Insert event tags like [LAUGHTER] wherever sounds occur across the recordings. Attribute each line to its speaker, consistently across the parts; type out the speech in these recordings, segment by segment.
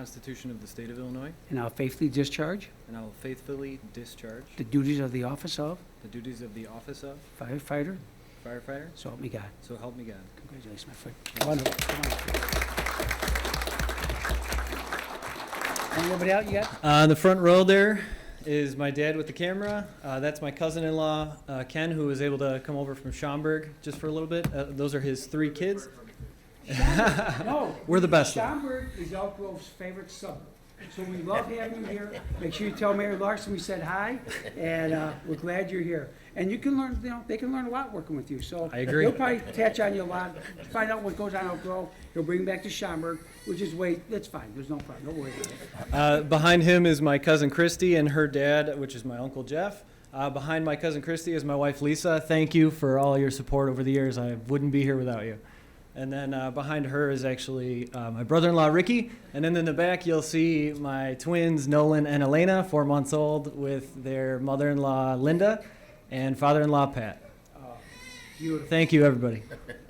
Speaker 1: Constitution of the State of Illinois,
Speaker 2: and I'll faithfully discharge
Speaker 1: and I will faithfully discharge
Speaker 2: the duties of the office of
Speaker 1: the duties of the office of
Speaker 2: firefighter,
Speaker 1: firefighter,
Speaker 2: so help me God.
Speaker 1: so help me God.
Speaker 2: Congratulations, my friend. Come on up, come on up. Anybody
Speaker 1: [LAUGHS]
Speaker 2: out yet?
Speaker 1: Uh, in the front row there is my dad with the camera. Uh, that's my cousin-in-law, uh, Ken, who was able to come over from Schaumburg just for a little bit. Uh, those are his three kids.
Speaker 2: No.
Speaker 1: We're the best.
Speaker 2: Schaumburg is Elk Grove's favorite suburb. So we love having you here. Make sure you tell Mary Larson we said hi, and uh, we're glad you're here. And you can learn, you know, they can learn a lot working with you, so.
Speaker 1: I agree.
Speaker 2: He'll probably attach on you a lot, find out what goes on Elk Grove. He'll bring back to Schaumburg, which is way, that's fine, there's no problem, don't worry about it.
Speaker 1: Uh, behind him is my cousin Christy and her dad, which is my uncle Jeff. Uh, behind my cousin Christy is my wife Lisa. Thank you for all your support over the years. I wouldn't be here without you. And then uh, behind her is actually uh, my brother in law Ricky. And then in the back, you'll see my twins Nolan and Elena, four months old, with their mother in law Linda and father in law Pat.
Speaker 2: Uh, Beautiful.
Speaker 1: Thank you, everybody.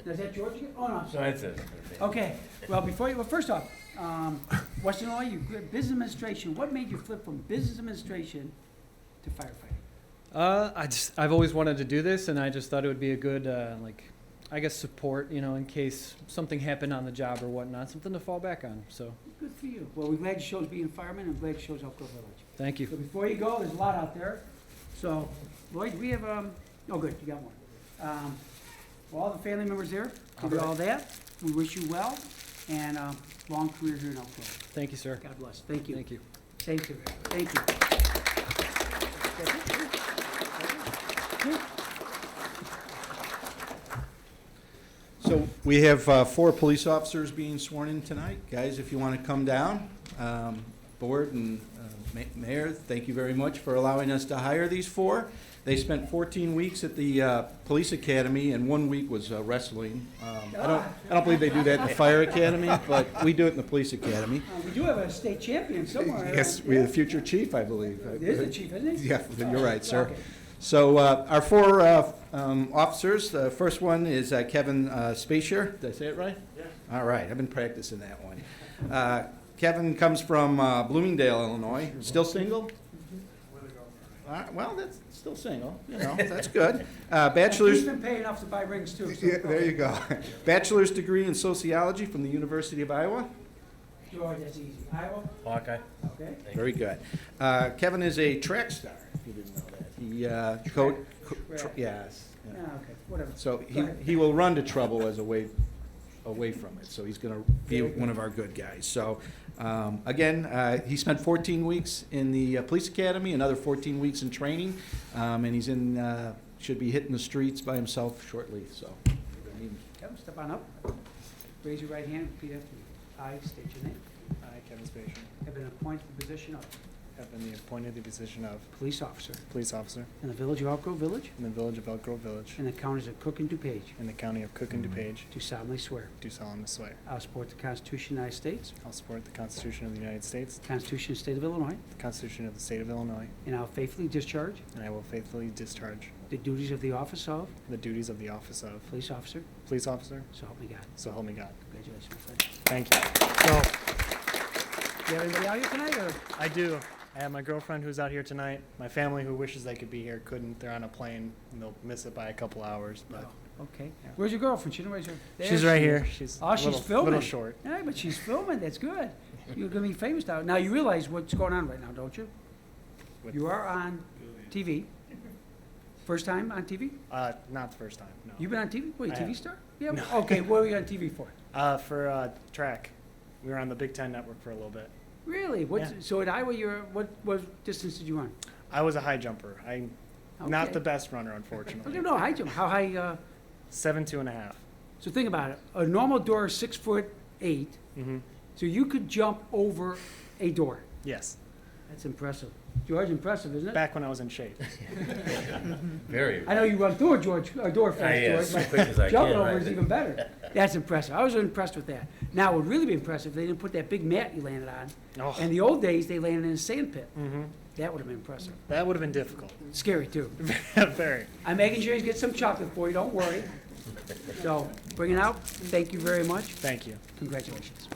Speaker 2: Is that George again? Oh, no, I'm sorry.
Speaker 3: That's it.
Speaker 2: Okay, well, before you, well, first off, um, Western Illinois, you, quit business administration, what made you flip from business administration to firefighting?
Speaker 1: Uh, I just I've always wanted to do this, and I just thought it would be a good uh, like, I guess support, you know, in case something happened on the job or whatnot, something to fall back on. So
Speaker 2: Good for you. Well, we're glad it shows being a fireman and glad it shows Elk Grove Village.
Speaker 1: thank
Speaker 2: So
Speaker 1: you.
Speaker 2: before you go, there's a lot out there. So Lloyd, we have, um, oh, good, you got one. Um, well, all the family members there, give you all that. We wish you well and, um, long career here in Elk Grove.
Speaker 1: Thank you, sir.
Speaker 2: God bless. Thank you.
Speaker 1: Thank you.
Speaker 2: Thank you. Thank you.
Speaker 4: So we have uh, four police officers being sworn in tonight. Guys, if you want to come down, um, board and uh, ma- mayor, thank you very much for allowing us to hire these four. They spent 14 weeks at the uh, police academy and one week was uh, wrestling. Um, I don't, I don't believe they do that in the fire academy, but we do it in the police academy.
Speaker 2: Uh, we do have a state champion somewhere.
Speaker 4: Yes, we
Speaker 2: Yeah.
Speaker 4: have the future chief, I believe.
Speaker 2: It is the chief, isn't it?
Speaker 4: Yeah, you're right, sir.
Speaker 2: Okay.
Speaker 4: So uh, our four uh, um, officers, the first one is uh, Kevin uh, Spacier. Did I say it right? Yeah. All right, I've been practicing that one. Uh, Kevin comes from uh, Bloomingdale, Illinois. Still single? All right, Well, that's still single, you know, that's good. Uh, Bachelor's.
Speaker 2: He's been paid enough to buy rings too. so-
Speaker 4: [LAUGHS] Yeah, there you go. [LAUGHS] Bachelor's degree in sociology from the University of Iowa.
Speaker 2: George, that's easy. Iowa,
Speaker 3: Hawkeye.
Speaker 2: okay.
Speaker 4: Very good. Uh, Kevin is a track star, if you didn't know that. He, uh, co- co- tr-
Speaker 2: Track.
Speaker 4: yes. yeah.
Speaker 2: Ah, okay, whatever.
Speaker 4: So
Speaker 2: Go
Speaker 4: he,
Speaker 2: ahead.
Speaker 4: he will run to trouble as a way, away from it, so he's gonna be one of our good guys. So, um, again, uh, he spent fourteen weeks in the uh, police academy, another fourteen weeks in training, um, and he's in, uh, should be hitting the streets by himself shortly, so.
Speaker 2: Kevin, step on up. Raise your right hand, repeat after me. I state your name.
Speaker 5: I, Kevin Spatian,
Speaker 2: Have been appointed to the position of
Speaker 5: have been appointed the position of
Speaker 2: police officer
Speaker 5: police officer
Speaker 2: in the village of Elk Grove Village
Speaker 5: in the village of Elk Grove Village
Speaker 2: and the counties of Cook and DuPage.
Speaker 5: in the county of Cook and DuPage,
Speaker 2: Do solemnly swear.
Speaker 5: do solemnly swear.
Speaker 2: I'll support the Constitution of the United States,
Speaker 5: I'll support the Constitution of the United States,
Speaker 2: the Constitution of the State of Illinois,
Speaker 5: the Constitution of the State of Illinois,
Speaker 2: and I'll faithfully discharge
Speaker 5: and I will faithfully discharge
Speaker 2: the duties of the office of
Speaker 5: the duties of the office of
Speaker 2: police officer.
Speaker 5: police officer,
Speaker 2: So help me God.
Speaker 5: so help me God.
Speaker 2: Congratulations, my friend.
Speaker 5: Thank you.
Speaker 2: Do you have anybody out here tonight, or?
Speaker 5: I do. I have my girlfriend who's out here tonight, my family who wishes they could be here, couldn't. They're on a plane, and they'll miss it by a couple hours, but
Speaker 2: Okay.
Speaker 5: Yeah.
Speaker 2: Where's your girlfriend? She didn't raise her. Oh, There
Speaker 5: she's
Speaker 2: she is.
Speaker 5: right here. She's
Speaker 2: Oh,
Speaker 5: a
Speaker 2: she's
Speaker 5: little,
Speaker 2: filming.
Speaker 5: little short.
Speaker 2: Yeah, but she's filming. That's good. You're gonna be famous now. Now you realize what's going on right now, don't you?
Speaker 5: With-
Speaker 2: You are on TV. First time on TV?
Speaker 5: Uh, not the first time, no.
Speaker 2: You've been on TV? Wait,
Speaker 5: I
Speaker 2: TV
Speaker 5: have.
Speaker 2: star? Yeah.
Speaker 5: No.
Speaker 2: [LAUGHS] Okay. What were you on TV for?
Speaker 5: Uh, for uh, track, we were on the Big Ten Network for a little bit.
Speaker 2: Really? What's,
Speaker 5: Yeah.
Speaker 2: So at Iowa, you're what? What distance did you run?
Speaker 5: I was a high jumper. I'm not
Speaker 2: Okay.
Speaker 5: the best runner,
Speaker 2: Okay, [LAUGHS]
Speaker 5: unfortunately.
Speaker 2: no, high jump. How high? Uh,
Speaker 5: Seven two and a half.
Speaker 2: so think about it. A normal door is six foot eight.
Speaker 5: Mm-hmm.
Speaker 2: So you could jump over a door.
Speaker 5: Yes,
Speaker 2: That's impressive. George, impressive, isn't it?
Speaker 5: back when I was
Speaker 2: [LAUGHS]
Speaker 5: in shape.
Speaker 3: Very.
Speaker 2: I know you run through a George, a door
Speaker 3: Ah,
Speaker 2: fast,
Speaker 3: yes,
Speaker 2: George,
Speaker 3: as quick as
Speaker 2: but
Speaker 3: I can.
Speaker 2: jumping over
Speaker 3: right.
Speaker 2: is even better. That's impressive. I was impressed with that. Now, it would really be impressive if they didn't put that big mat you landed on.
Speaker 5: Oh,
Speaker 2: In the old days, they landed in a sand pit.
Speaker 3: Mm-hmm.
Speaker 5: hmm
Speaker 2: That would have been impressive.
Speaker 5: That would have been difficult. [LAUGHS]
Speaker 2: Scary, too.
Speaker 5: Very.
Speaker 2: I'm making sure you get some chocolate for you, don't worry. So, bring it out. Thank you very much.
Speaker 5: Thank you.
Speaker 2: Congratulations.